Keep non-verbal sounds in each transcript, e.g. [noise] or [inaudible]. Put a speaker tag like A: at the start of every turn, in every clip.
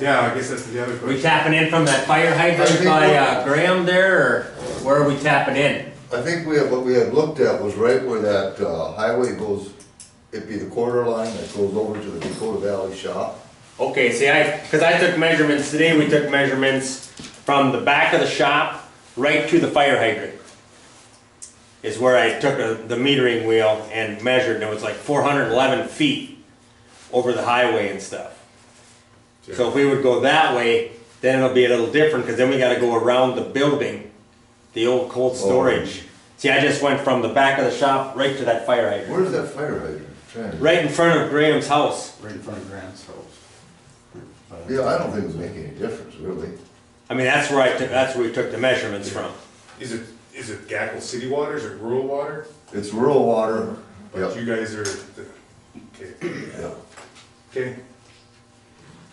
A: Yeah, I guess that's the other
B: Are we
A: question.
B: tapping in from that fire
C: I
B: hydrant
C: think
B: by
C: we're-
B: uh, Graham there, or where are we tapping in?
C: I think we had, what we had looked at was right where that uh, highway goes, it'd be the quarter line that goes over to the Dakota Valley shop.
B: Okay, see, I, cause I took measurements, today we took measurements from the back of the shop right to the fire hydrant. Is where I took the- the metering wheel and measured, and it was like four hundred and eleven feet over the highway and stuff. So if we would go that way, then it'll be a little different, cause then we gotta go around the building, the old cold storage. See, I just went from the back of the shop right to that fire hydrant.
C: Where's that fire hydrant? Trying to-
B: Right in front of Graham's house.
A: Right in front of Grant's house.
C: Yeah, I don't think it would make any difference, really.
B: I mean, that's where I took, that's where we took the measurements from.
A: Is it, is it Gackel City Water, is it rural water?
C: It's rural water.
A: But you guys are, the- okay,
C: Yep.
A: okay.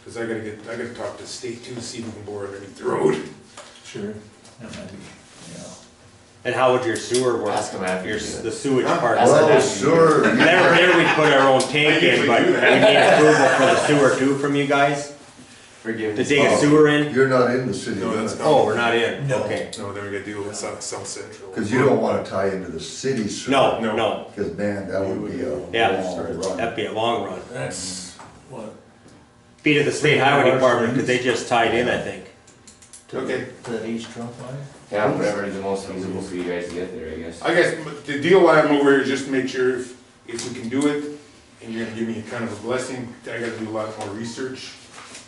A: Cause I gotta get, I gotta talk to state too, see if we can bore underneath the road.
C: Sure.
B: And how would your sewer work?
D: Ask them after you
B: Your,
D: do it.
B: the sewage part.
C: Well,
B: There,
C: sure. you-
B: there we put our own tank
A: I usually
B: in, but we
A: do
B: need
A: that.
B: approval for the sewer too from you guys to
D: Forgive me.
B: dig a sewer in?
C: Oh, You're not in the city
A: No, that's
C: limits.
A: not-
B: Oh, we're not in, okay.
A: No, then we gotta deal with South, South Central.
C: Cause you don't wanna tie into the city. sewer.
B: No,
A: No.
B: no,
C: Cause man, that would be a long
B: yeah,
C: run.
B: that'd be a long run.
E: That's what,
B: Be to the state highway department, cause they just tied in, I think.
A: Okay,
E: that East Trump line?
D: Yeah, whatever is the most feasible for you guys to get there, I guess.
A: I guess m- the deal why I'm over here is just to make sure if, if we can do it, and you're gonna give me kind of a blessing, I gotta do a lot more research.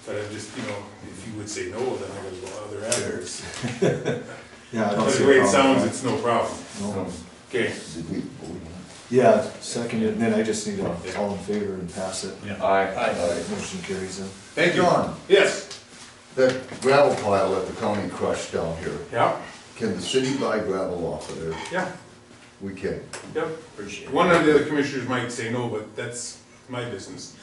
A: But I just, you know, if you would say no, then I gotta go other avenues.
E: Yeah, I don't
A: But
E: see
A: the
E: a
A: way it
E: problem
A: sounds,
E: with
A: it's no problem.
E: that. No.
A: Okay,
E: Yeah, seconded, and then I just need to all in favor and pass it.
D: Aye.
C: Alright.
E: Motion carries in.
A: thank you.
C: John,
A: Yes.
C: that gravel pile that the county crushed down here,
A: Yeah,
C: can the city buy gravel off of there?
A: yeah,
C: We can.
A: yep. One of the other commissioners might say no, but that's my business.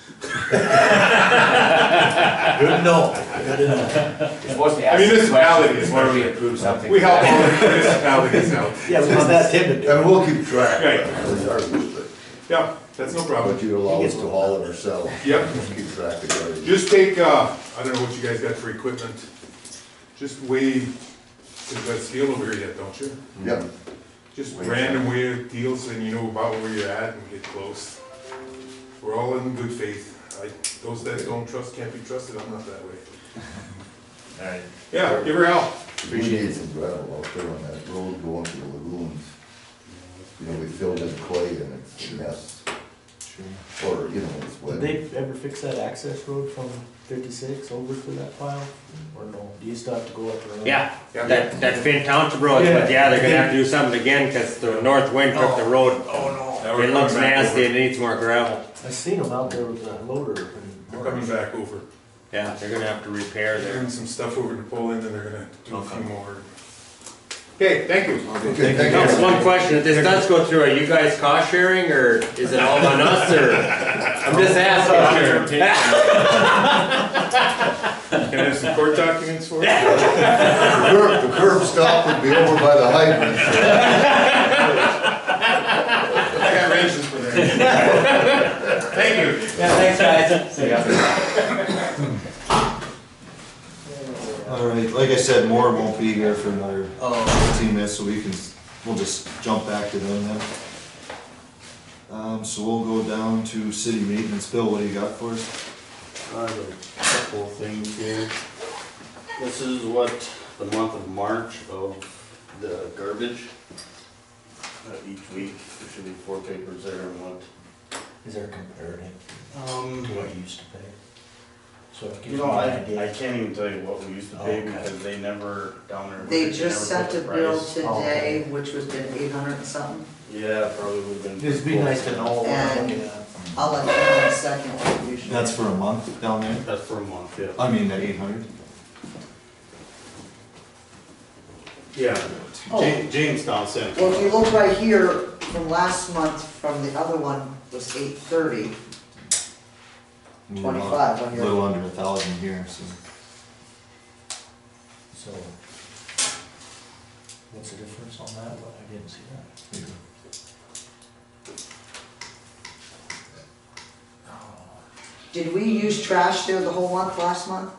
E: Good enough. Good enough.
D: It's supposed to ask
A: municipality
D: questions
A: is
D: before we
A: better.
D: approve something.
A: We help all the municipalities out. [laughs]
E: Yeah, we just asked him to do it.
C: And we'll keep track.
A: Right.
C: of the garbage, but-
A: Yeah, that's no problem.
C: But you allow us to haul it ourselves.
A: Yep.
C: We'll Keep track of garbage.
A: Just take, uh, I don't know what you guys got for equipment. Just weigh, cause that steel over here yet, don't you?
C: Yep.
A: Just random weird deals and you know about where you're at and get close. We're all in good faith. I, those that don't trust can't be trusted. I'm not that way.
D: Alright.
A: Yeah, give her hell.
C: We need some gravel out there on that road going to the lagoons. You know, we filled in clay and it's a mess, or, you know, it's
F: Did
C: wet.
F: they ever fix that access road from fifty-six over to that pile, or no, do you still have to go up around?
B: Yeah,
A: Yeah.
B: that, that's been township roads, but yeah, they're gonna have to do something again, cause the north wind took the road.
E: Oh,
A: Now we're
B: It looks
A: coming back
B: nasty,
A: over.
B: it needs more gravel.
F: I seen them out there with the loader and.
A: We're coming back over.
B: Yeah, they're gonna have to repair
A: They're
B: there.
A: doing some stuff over to Poland and they're gonna do a few more. Okay, thank you.
C: Okay, thank you.
B: That's one question, if this does go through, are you guys cost sharing, or is it all on us, or? I'm just [laughs] asking.
A: Can I have some court documents for you?
C: The curb, the curb stop would be over by the hydrant.
A: I got wrenches for that. Thank you.
B: Yeah, thanks, guys.
E: All right, like I said, Moore won't be here for another fifteen minutes, so we can, we'll just jump back to them then. Um, so we'll go down to city maintenance. Bill, what do you got for us?
G: I have a couple of things here. This is what the month of March of the garbage. Uh, each week, there should be four papers there and what.
F: Is there a comparative
G: Um,
F: to what you used to pay? So it gives
G: you
F: you
G: know,
F: an
G: I, I
F: idea.
G: can't even tell you what we used to pay
F: Okay.
G: because they never down there.
H: They just
G: never
H: sent
G: put
H: a
G: the
H: bill
G: price.
F: okay.
H: today, which was been eight hundred and something.
G: Yeah, probably would've been.
F: It'd be nice to know what we're looking at.
H: I'll let you know in a second what you should.
E: That's for a month down there?
G: That's for a month, yeah.
E: I mean, that eight hundred?
G: Yeah. Ja- Jamestown sent.
H: Well, if you look right here, from last month, from the other one was eight thirty, twenty-five on
E: A Mm, little
H: your,
E: under a thousand here, so.
F: So. What's the difference on that one? I didn't see that.
E: yeah.
H: did we use trash there the whole month last month?